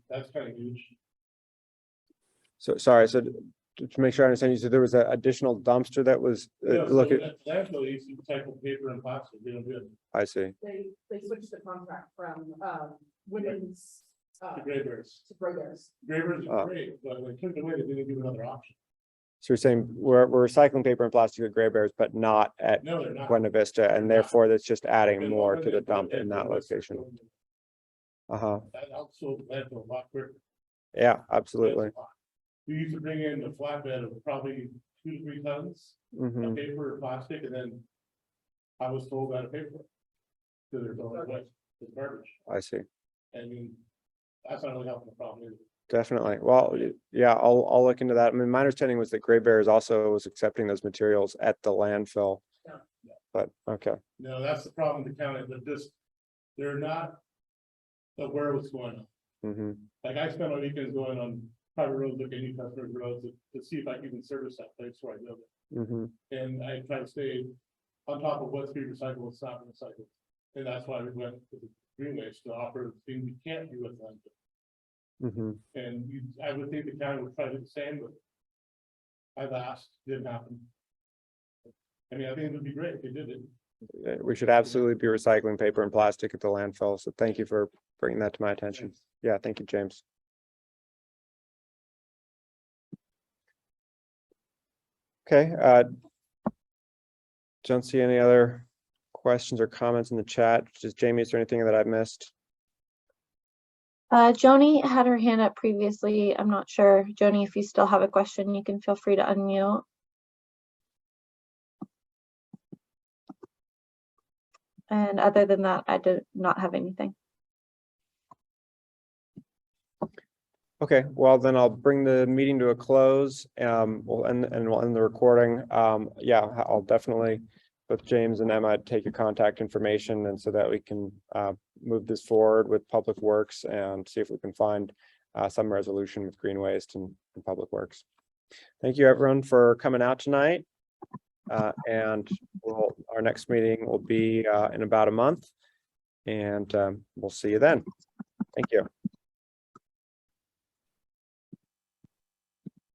That's kind of huge. So, sorry, so to to make sure I understand you, so there was an additional dumpster that was, uh, Yeah, so look, at- that- That's what you tackle paper and boxes, real good. I see. They, they switched the contract from, um, women's, uh, The to Graybirds, Brothers. Graybirds Ah. are great, but when they took it away, they didn't give another option. So you're saying we're, we're recycling paper and plastic at Gray Bears, but not at No, they're not. Buena Vista, and therefore that's just adding And more when to they the put dump in that Graybirds, location. Uh-huh, That also led to a lot quicker. yeah, That's absolutely. a lot. We used to bring in a flatbed of probably two to three tons hmm of paper or plastic, and then I was told out of paper. Cause there's all that, it's garbage, I see, and you- that's not really helping the problem either. definitely. Well, y- yeah, I'll, I'll look into that. I mean, my understanding was that Gray Bears also was accepting those materials at the landfill. Yeah. But, okay, No, that's the problem with the county, they're just, they're not aware of what's going on. hmm Like I spend my weekends going on private roads, looking at customer roads to, to see if I can even service that place where I live. hmm And I try to stay on top of what's being recycled, what's not being recycled. And that's why we went to the green waste to offer things we can't do with them. hmm And you, I would think the county would try to do the same, but I've asked, didn't happen. I mean, I think it would be great if they did it. Uh, We should absolutely be recycling paper and plastic at the landfill, so thank you for bringing that to my attention. Yeah, thank you, James. Okay, uh. Don't see any other questions or comments in the chat. Just Jamie, is there anything that I missed? Uh, Joni had her hand up previously. I'm not sure. Joni, if you still have a question, you can feel free to unmute. And other than that, I do not have anything. Okay, well, then I'll bring the meeting to a close. Um, we'll end, and we'll end the recording. Um, yeah, I'll definitely. With James and Emma, take your contact information and so that we can uh move this forward with Public Works and see if we can find. Uh, some resolution with Green Waste and and Public Works. Thank you, everyone, for coming out tonight. Uh, and we'll, our next meeting will be uh in about a month. And um, we'll see you then. Thank you.